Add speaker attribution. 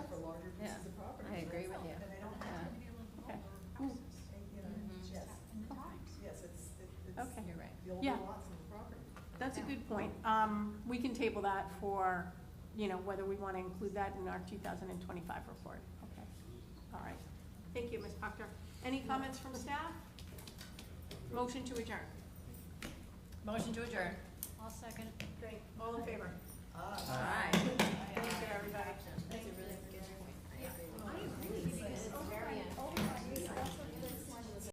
Speaker 1: Uh,
Speaker 2: Yeah.
Speaker 3: lots on the property.
Speaker 2: That's a good point. Um, we can table that for, you know, whether we wanna include that in our two thousand and twenty-five report. Okay. All right. Thank you, Ms. Proctor. Any comments from staff? Motion to adjourn.
Speaker 1: Motion to adjourn.
Speaker 4: I'll second.
Speaker 2: Great. All in favor?
Speaker 3: Ah.
Speaker 1: Aye.